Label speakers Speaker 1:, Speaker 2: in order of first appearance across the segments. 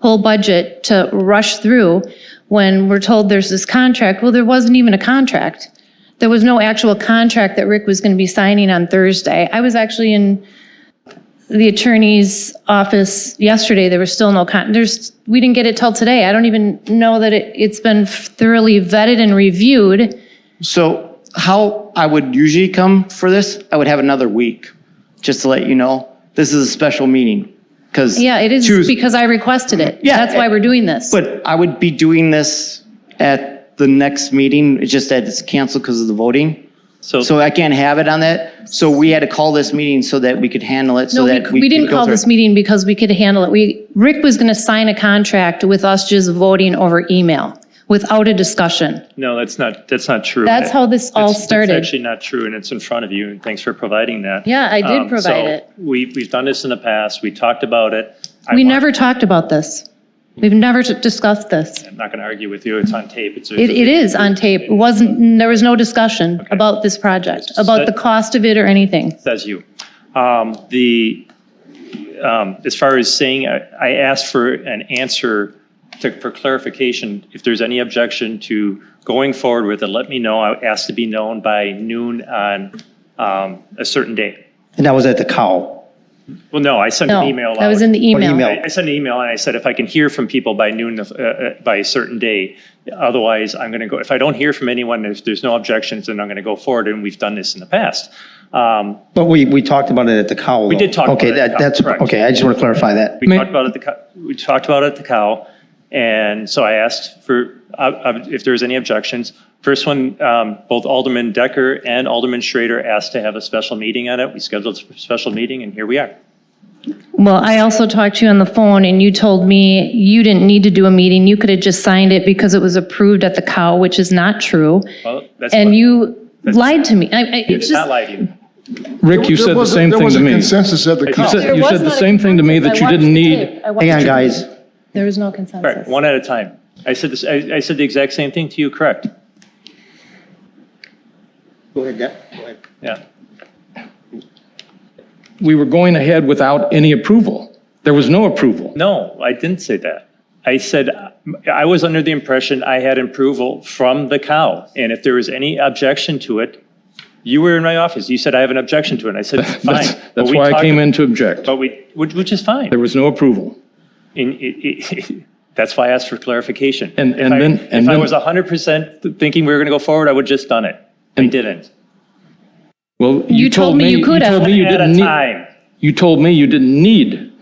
Speaker 1: whole budget to rush through when we're told there's this contract. Well, there wasn't even a contract. There was no actual contract that Rick was going to be signing on Thursday. I was actually in the attorney's office yesterday. There was still no con, there's, we didn't get it till today. I don't even know that it, it's been thoroughly vetted and reviewed.
Speaker 2: So how I would usually come for this, I would have another week, just to let you know, this is a special meeting. Because.
Speaker 1: Yeah, it is because I requested it.
Speaker 2: Yeah, eh,
Speaker 1: That's why we're doing this.
Speaker 2: But I would be doing this at the next meeting, it's just that it's canceled because of the voting. So I can't have it on that. So we had to call this meeting so that we could handle it, so
Speaker 1: No,
Speaker 2: that
Speaker 1: we,
Speaker 2: we.
Speaker 1: we
Speaker 2: could
Speaker 1: didn't
Speaker 2: go
Speaker 1: call
Speaker 2: through.
Speaker 1: this meeting because we could handle it. We, Rick was going to sign a contract with us just voting over email without a discussion.
Speaker 3: No, that's not, that's not true.
Speaker 1: That's how this all
Speaker 3: It's- it's
Speaker 1: started.
Speaker 3: actually not true, and it's in front of you, and thanks for providing that.
Speaker 1: Yeah, I did
Speaker 3: Um, so
Speaker 1: provide it.
Speaker 3: We, we've done this in the past, we talked about it. I
Speaker 1: We
Speaker 3: want-
Speaker 1: never talked about this. We've never t- discussed this.
Speaker 3: I'm not going to argue with you, it's on tape. It's a-
Speaker 1: It, it is on tape. It wasn't, there was no discussion about this project, about the cost of it or anything.
Speaker 3: Says you. Um, The, um, as far as saying, I I asked for an answer to- for clarification, if there's any objection to going forward with it, let me know. I asked to be known by noon on um, a certain day.
Speaker 4: And that was at the cow.
Speaker 3: Well, no, I sent
Speaker 1: No,
Speaker 3: an email out.
Speaker 1: that was in the email.
Speaker 4: email.
Speaker 3: I I sent an email and I said, if I can hear from people by noon, uh, uh, by a certain day, otherwise I'm going to go, if I don't hear from anyone, if there's no objections, then I'm going to go forward, and we've done this in the past. Um,
Speaker 4: But we, we talked about it at the cow. We
Speaker 3: did talk about
Speaker 4: Okay,
Speaker 3: it at the
Speaker 4: that,
Speaker 3: cow,
Speaker 4: that's,
Speaker 3: correct.
Speaker 4: okay, I just want to clarify that.
Speaker 3: We talked about it, at the, co- we talked about it at the cow, and so I asked for, uh, uh, if there's any objections. First one, um, both Alderman Decker and Alderman Schrader asked to have a special meeting on it. We scheduled a special meeting, and here we are.
Speaker 1: Well, I also talked to you on the phone and you told me you didn't need to do a meeting. You could have just signed it because it was approved at the cow, which is not true.
Speaker 3: Well, that's
Speaker 1: And
Speaker 3: what-
Speaker 1: you lied to me. I, I,
Speaker 3: You
Speaker 1: it's
Speaker 3: did not
Speaker 1: just,
Speaker 3: lie to you.
Speaker 5: Rick, you
Speaker 6: There
Speaker 5: said the
Speaker 6: wasn't-
Speaker 5: same
Speaker 6: there
Speaker 5: thing
Speaker 6: was
Speaker 5: to
Speaker 6: a
Speaker 5: me.
Speaker 6: Consensus at the
Speaker 3: You
Speaker 6: council.
Speaker 5: said- You said the same thing to me that you didn't need.
Speaker 4: Hang on, guys.
Speaker 1: There was no
Speaker 3: Right,
Speaker 1: consensus.
Speaker 3: one at a time. I said this, I, I said the exact same thing to you, correct?
Speaker 4: Go ahead, Go ahead.
Speaker 3: Yeah.
Speaker 5: We were going ahead without any approval. There was no approval.
Speaker 3: No, I didn't say that. I said, uh, I was under the impression I had approval from the cow. And if there was any objection to it, you were in my office. You said, I have an objection to it. And I said, fine.
Speaker 5: That's,
Speaker 3: But
Speaker 5: that's
Speaker 3: we
Speaker 5: why I
Speaker 3: talked-
Speaker 5: came in to object.
Speaker 3: But we, which, which is fine.
Speaker 5: There was no approval.
Speaker 3: And it, it, that's why I asked for clarification.
Speaker 5: And-
Speaker 3: If
Speaker 5: and
Speaker 3: I-
Speaker 5: then- and
Speaker 3: If I
Speaker 5: then-
Speaker 3: was hundred percent thinking we were going to go forward, I would just done it. I didn't.
Speaker 5: Well, you told me, you
Speaker 1: could have.
Speaker 5: told me you
Speaker 3: At a
Speaker 5: didn't need,
Speaker 3: time.
Speaker 5: you told me you didn't need.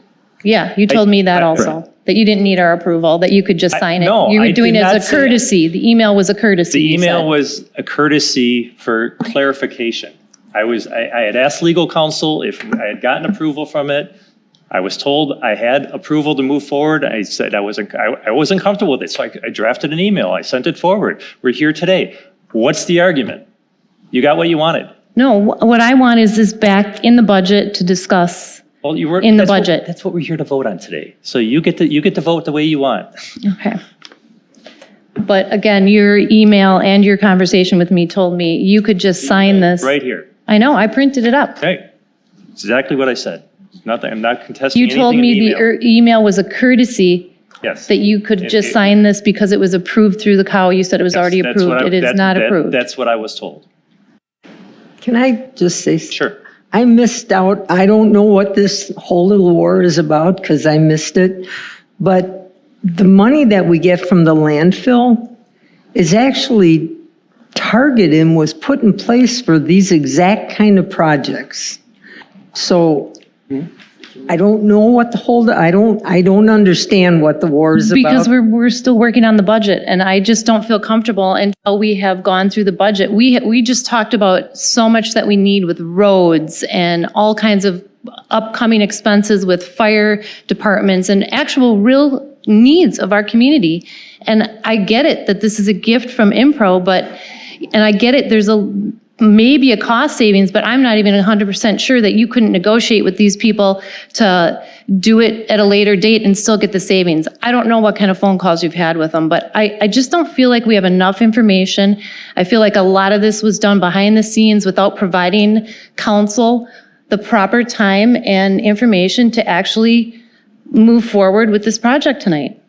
Speaker 1: Yeah, you told me that
Speaker 3: I-
Speaker 1: also, that you didn't need our approval, that you could just sign it.
Speaker 3: no,
Speaker 1: You
Speaker 3: I
Speaker 1: were
Speaker 3: did
Speaker 1: doing it
Speaker 3: not
Speaker 1: as a
Speaker 3: say that.
Speaker 1: courtesy. The email was a courtesy.
Speaker 3: The
Speaker 1: you said.
Speaker 3: email was a courtesy for clarification. I was, I, I had asked legal counsel if I had gotten approval from it. I was told I had approval to move forward. I said I wasn't, I, I wasn't comfortable with it, so I, I drafted an email. I sent it forward. We're here today. What's the argument? You got what you wanted.
Speaker 1: No, wh- what I want is this back in the budget to discuss.
Speaker 3: Well, you were.
Speaker 1: In the
Speaker 3: that's what-
Speaker 1: budget.
Speaker 3: That's what we're here to vote on today. So you get to, you get to vote the way you want.
Speaker 1: Okay. But again, your email and your conversation with me told me you could just sign this.
Speaker 3: Right here.
Speaker 1: I know, I printed it up.
Speaker 3: Okay. It's Exactly what I said. It's Nothing, I'm not contesting
Speaker 1: You
Speaker 3: anything
Speaker 1: told
Speaker 3: in
Speaker 1: me the
Speaker 3: email.
Speaker 1: er- email was a courtesy,
Speaker 3: Yes.
Speaker 1: that you could just
Speaker 3: it-
Speaker 1: sign this because it was approved through the cow. You said it was already
Speaker 3: That's what
Speaker 1: approved.
Speaker 3: I-
Speaker 1: It is
Speaker 3: that-
Speaker 1: not
Speaker 3: that-
Speaker 1: approved.
Speaker 3: That's what I was told.
Speaker 7: Can I just say?
Speaker 3: Sure.
Speaker 7: I missed out. I don't know what this whole little war is about because I missed it. But the money that we get from the landfill is actually targeted and was put in place for these exact kind of projects. So I don't know what the whole, I don't, I don't understand what the war is about.
Speaker 1: Because we're, we're still working on the budget, and I just don't feel comfortable until we have gone through the budget. We, we just talked about so much that we need with roads and all kinds of upcoming expenses with fire departments and actual real needs of our community. And I get it that this is a gift from Impro, but, and I get it, there's a, maybe a cost savings, but I'm not even 100% sure that you couldn't negotiate with these people to do it at a later date and still get the savings. I don't know what kind of phone calls you've had with them, but I, I just don't feel like we have enough information. I feel like a lot of this was done behind the scenes without providing council the proper time and information to actually move forward with this project tonight.